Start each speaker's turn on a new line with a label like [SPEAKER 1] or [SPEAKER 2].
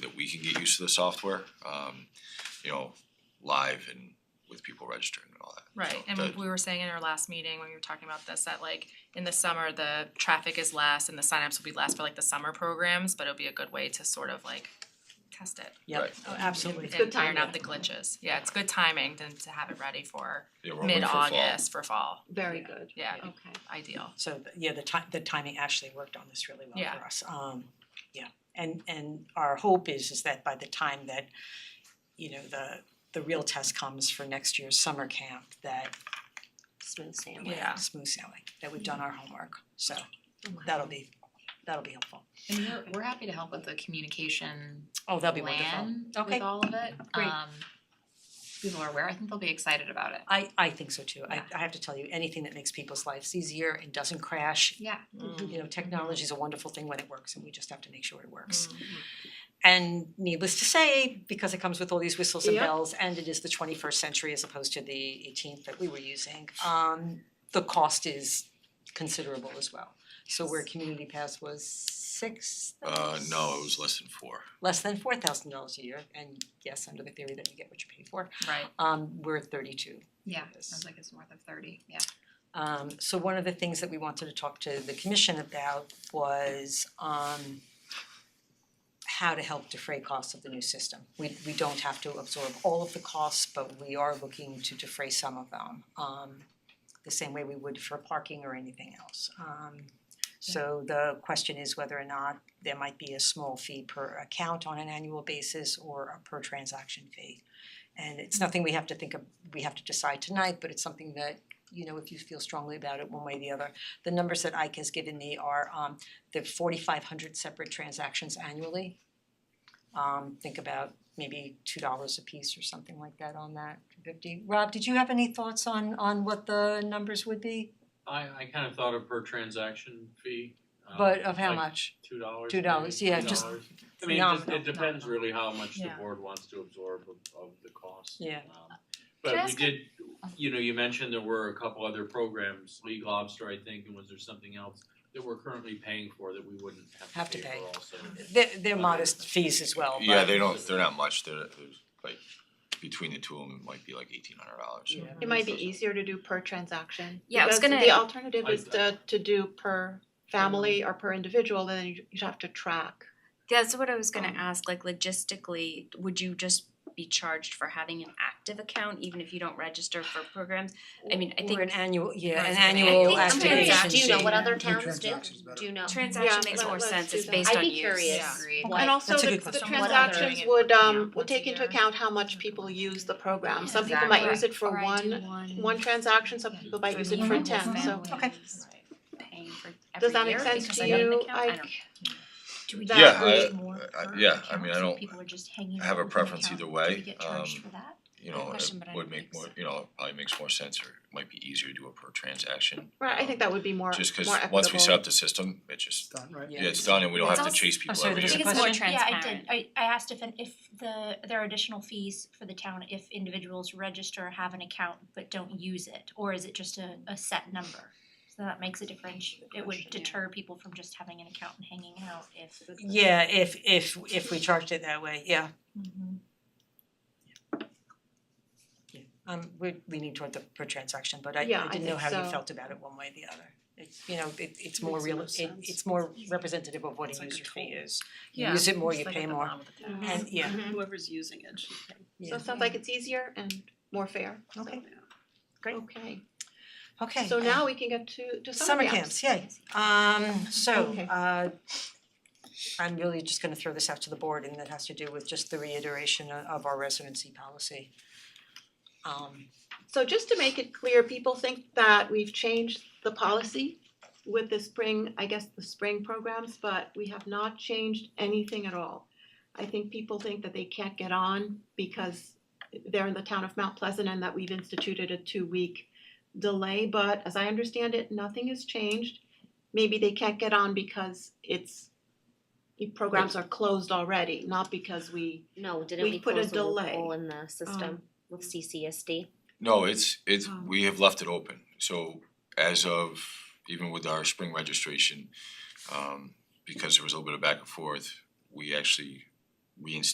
[SPEAKER 1] can get used to the software, um, you know, live and with people registering and all that.
[SPEAKER 2] Right,
[SPEAKER 1] So
[SPEAKER 2] and
[SPEAKER 1] that-
[SPEAKER 2] we were saying in our last meeting, when we were talking about this, that like, in the summer, the traffic is less and the signups will be less for like the summer programs, but it'll be a good way to sort of like test it
[SPEAKER 3] Yep,
[SPEAKER 1] Right.
[SPEAKER 3] oh, absolutely.
[SPEAKER 4] good
[SPEAKER 2] and iron out the
[SPEAKER 4] timing.
[SPEAKER 2] glitches. Yeah, it's good timing to to have it ready for
[SPEAKER 1] yeah, we're hoping for fall.
[SPEAKER 2] mid-August for fall,
[SPEAKER 4] Very good,
[SPEAKER 2] yeah,
[SPEAKER 4] okay.
[SPEAKER 2] ideal.
[SPEAKER 3] So, th- yeah, the ti- the timing actually worked on this really well
[SPEAKER 2] Yeah.
[SPEAKER 3] for us. Um, yeah, and and our hope is is that by the time that, you know, the the real test comes for next year's summer camp, that
[SPEAKER 4] Smooth sailing.
[SPEAKER 2] Yeah.
[SPEAKER 3] smooth sailing, that we've done our homework, so
[SPEAKER 4] Okay.
[SPEAKER 3] that'll be, that'll be helpful.
[SPEAKER 5] And we're we're happy to help with the communication
[SPEAKER 3] Oh, that'll be wonderful.
[SPEAKER 5] plan
[SPEAKER 3] Okay.
[SPEAKER 5] with all of it.
[SPEAKER 2] Uh,
[SPEAKER 3] Great.
[SPEAKER 5] Um people are aware, I think they'll be excited about it.
[SPEAKER 3] I I think so too. I
[SPEAKER 5] Yeah.
[SPEAKER 3] I have to tell you, anything that makes people's lives easier and doesn't crash,
[SPEAKER 5] Yeah. Mm-hmm.
[SPEAKER 1] Mm.
[SPEAKER 3] you know, technology is a wonderful thing when it works and we just have to make sure it works.
[SPEAKER 2] Mm.
[SPEAKER 3] And needless to say, because it comes with all these whistles and
[SPEAKER 4] Yep.
[SPEAKER 3] bells, and it is the twenty first century as opposed to the eighteenth that we were using, um, the cost is considerable as well. So where community pass was six
[SPEAKER 1] Uh, no, it was less than four.
[SPEAKER 3] less than four thousand dollars a year, and yes, under the theory that you get what you pay for,
[SPEAKER 2] Right,
[SPEAKER 3] um, we're thirty two.
[SPEAKER 5] Yeah,
[SPEAKER 3] Yes.
[SPEAKER 5] sounds like it's north of thirty, yeah.
[SPEAKER 3] Um so one of the things that we wanted to talk to the commission about was um how to help defray costs of the new system. We we don't have to absorb all of the costs, but we are looking to defray some of them. Um the same way we would for parking or anything else. Um so the question is whether or not there might be a small fee per account on an annual basis or a per transaction fee. And it's nothing we have to think of, we have to decide tonight, but it's something that you know, if you feel strongly about it one way or the other. The numbers that Ike has given me are um the forty five hundred separate transactions annually. Um think about maybe two dollars a piece or something like that on that fifty. Rob, did you have any thoughts on on what the numbers would be?
[SPEAKER 6] I I kind of thought of per transaction fee. um,
[SPEAKER 3] But of how
[SPEAKER 6] like
[SPEAKER 3] much?
[SPEAKER 6] Two dollars.
[SPEAKER 3] Two dollars, yeah, just
[SPEAKER 6] $2. I mean, it just,
[SPEAKER 3] phenomenal.
[SPEAKER 6] it depends really how much the
[SPEAKER 2] Yeah.
[SPEAKER 6] board wants to absorb of of the cost.
[SPEAKER 3] Yeah.
[SPEAKER 6] Um,
[SPEAKER 5] Uh, Can I
[SPEAKER 6] But we
[SPEAKER 5] ask a-
[SPEAKER 6] did, you know, you mentioned there were a couple other programs, League Lobster, I think, and was there something else that we're currently paying for that we wouldn't
[SPEAKER 3] Have
[SPEAKER 6] have
[SPEAKER 3] to
[SPEAKER 6] to pay
[SPEAKER 3] pay.
[SPEAKER 6] for also?
[SPEAKER 3] They're they're modest fees as well,
[SPEAKER 1] Yeah,
[SPEAKER 3] but-
[SPEAKER 1] they don't, they're not much, they're, there's like, between the two of them, it might be like eighteen hundred dollars.
[SPEAKER 3] Yeah.
[SPEAKER 4] It might be easier to do per transaction.
[SPEAKER 2] Yeah, I was
[SPEAKER 4] because
[SPEAKER 2] gonna-
[SPEAKER 4] The alternative
[SPEAKER 6] I-
[SPEAKER 4] is to to do per
[SPEAKER 2] Mm.
[SPEAKER 4] family or per individual, then you you'd have to track.
[SPEAKER 7] That's what I was gonna
[SPEAKER 4] Um,
[SPEAKER 7] ask, like logistically, would you just be charged for having an active account even if you don't register for programs? I mean, I think-
[SPEAKER 3] Or an annual, yeah,
[SPEAKER 2] Or an
[SPEAKER 3] an annual
[SPEAKER 2] annual
[SPEAKER 7] I'm curious,
[SPEAKER 3] activation
[SPEAKER 7] do you
[SPEAKER 3] fee.
[SPEAKER 7] know
[SPEAKER 8] what other
[SPEAKER 9] New
[SPEAKER 8] towns do,
[SPEAKER 9] transactions better.
[SPEAKER 8] do you know?
[SPEAKER 7] Transaction
[SPEAKER 4] Yeah,
[SPEAKER 7] makes more
[SPEAKER 4] let- let's
[SPEAKER 7] sense,
[SPEAKER 4] do
[SPEAKER 7] it's
[SPEAKER 4] that.
[SPEAKER 7] based
[SPEAKER 8] I'd
[SPEAKER 7] on
[SPEAKER 8] be
[SPEAKER 7] use.
[SPEAKER 2] Yeah.
[SPEAKER 8] curious
[SPEAKER 5] Agreed.
[SPEAKER 8] what
[SPEAKER 4] And also,
[SPEAKER 3] That's a
[SPEAKER 4] the
[SPEAKER 3] good
[SPEAKER 4] the
[SPEAKER 3] question.
[SPEAKER 2] What other-
[SPEAKER 4] transactions would um
[SPEAKER 2] Yeah,
[SPEAKER 4] would
[SPEAKER 2] once a
[SPEAKER 4] take into
[SPEAKER 2] year.
[SPEAKER 4] account how much people use the program. Um, Some people might use it for one one transaction, some people might use it for
[SPEAKER 5] Multiple
[SPEAKER 4] ten, so
[SPEAKER 5] families
[SPEAKER 3] Okay.
[SPEAKER 7] Paying for
[SPEAKER 4] does that
[SPEAKER 7] every
[SPEAKER 4] make
[SPEAKER 7] year
[SPEAKER 4] sense
[SPEAKER 7] because
[SPEAKER 4] to
[SPEAKER 7] I need an
[SPEAKER 4] you,
[SPEAKER 7] account? I
[SPEAKER 4] Ike?
[SPEAKER 7] don't-
[SPEAKER 8] Do we
[SPEAKER 1] Yeah,
[SPEAKER 8] charge
[SPEAKER 1] I-
[SPEAKER 8] more
[SPEAKER 1] I-
[SPEAKER 8] per
[SPEAKER 1] yeah, I mean,
[SPEAKER 8] account
[SPEAKER 1] I
[SPEAKER 8] so
[SPEAKER 1] don't
[SPEAKER 8] people are just hanging
[SPEAKER 1] have
[SPEAKER 8] out
[SPEAKER 1] a
[SPEAKER 8] with an
[SPEAKER 1] preference
[SPEAKER 8] account?
[SPEAKER 1] either
[SPEAKER 8] Do
[SPEAKER 1] way,
[SPEAKER 8] we get charged
[SPEAKER 1] um,
[SPEAKER 8] for that?
[SPEAKER 1] You know, it
[SPEAKER 7] question, but I
[SPEAKER 1] would
[SPEAKER 7] don't
[SPEAKER 1] make
[SPEAKER 7] think
[SPEAKER 1] more,
[SPEAKER 7] so.
[SPEAKER 1] you know, it probably makes more sense or it might be easier to do it per transaction.
[SPEAKER 4] right, I
[SPEAKER 1] um,
[SPEAKER 4] think that would be more more
[SPEAKER 1] Just
[SPEAKER 4] equitable.
[SPEAKER 1] cause once we set up the system, it just,
[SPEAKER 9] Done, right?
[SPEAKER 1] yeah, it's done and we don't
[SPEAKER 7] It's
[SPEAKER 1] have to
[SPEAKER 7] also-
[SPEAKER 1] chase people
[SPEAKER 3] sorry,
[SPEAKER 1] every
[SPEAKER 3] there
[SPEAKER 1] year.
[SPEAKER 3] was
[SPEAKER 7] I
[SPEAKER 3] a
[SPEAKER 7] think it's more
[SPEAKER 3] question?
[SPEAKER 8] Yeah, I
[SPEAKER 7] transparent.
[SPEAKER 8] did, I I asked if an if the there are additional fees for the town if individuals register, have an account, but don't use it, or is it just a a set number? So that makes a difference, it would deter people from just having an account and hanging out if
[SPEAKER 3] Yeah, if if if we charged it that way, yeah.
[SPEAKER 1] Mm-hmm.
[SPEAKER 2] Mm-hmm.
[SPEAKER 3] Yeah, um we're leaning toward the per transaction, but I
[SPEAKER 4] Yeah,
[SPEAKER 3] I
[SPEAKER 4] I
[SPEAKER 3] didn't know
[SPEAKER 4] think
[SPEAKER 3] how you
[SPEAKER 4] so.
[SPEAKER 3] felt about it one way or the other. It's, you know, it it's more
[SPEAKER 4] Makes
[SPEAKER 3] real,
[SPEAKER 4] more
[SPEAKER 3] it
[SPEAKER 4] sense.
[SPEAKER 3] it's more representative of what
[SPEAKER 10] It's
[SPEAKER 3] a
[SPEAKER 10] like a
[SPEAKER 3] user fee
[SPEAKER 10] toll.
[SPEAKER 3] is.
[SPEAKER 2] yeah.
[SPEAKER 3] You use it more,
[SPEAKER 2] just
[SPEAKER 3] you
[SPEAKER 2] like
[SPEAKER 3] pay
[SPEAKER 2] at the
[SPEAKER 3] more,
[SPEAKER 2] bottom of the tab.
[SPEAKER 3] and yeah,
[SPEAKER 10] Whoever's using it should pay.
[SPEAKER 4] So
[SPEAKER 3] yeah,
[SPEAKER 4] it sounds like it's easier and more fair. so-
[SPEAKER 3] Okay. Great.
[SPEAKER 4] Okay,
[SPEAKER 3] okay.
[SPEAKER 4] Mm-hmm. so now we can get to to
[SPEAKER 3] Summer camps, yay. Um so
[SPEAKER 4] Okay.
[SPEAKER 3] uh I'm really just gonna throw this out to the board and that has to do with just the reiteration o- of our residency policy. Um
[SPEAKER 4] So just to make it clear, people think that we've changed the policy with the spring, I guess the spring programs, but we have not changed anything at all. I think people think that they can't get on because they're in the town of Mount Pleasant and that we've instituted a two-week delay, but as I understand it, nothing has changed. Maybe they can't get on because it's, the programs are closed already, not because we,
[SPEAKER 8] No, didn't
[SPEAKER 4] We
[SPEAKER 8] we
[SPEAKER 4] put a
[SPEAKER 8] close the
[SPEAKER 4] delay
[SPEAKER 8] loophole in the
[SPEAKER 4] um,
[SPEAKER 8] system with CCSD?
[SPEAKER 1] No, it's it's
[SPEAKER 4] Um,
[SPEAKER 1] we have left it open, so as of even with our spring registration, um because there was a little bit of back and forth, we actually reinstated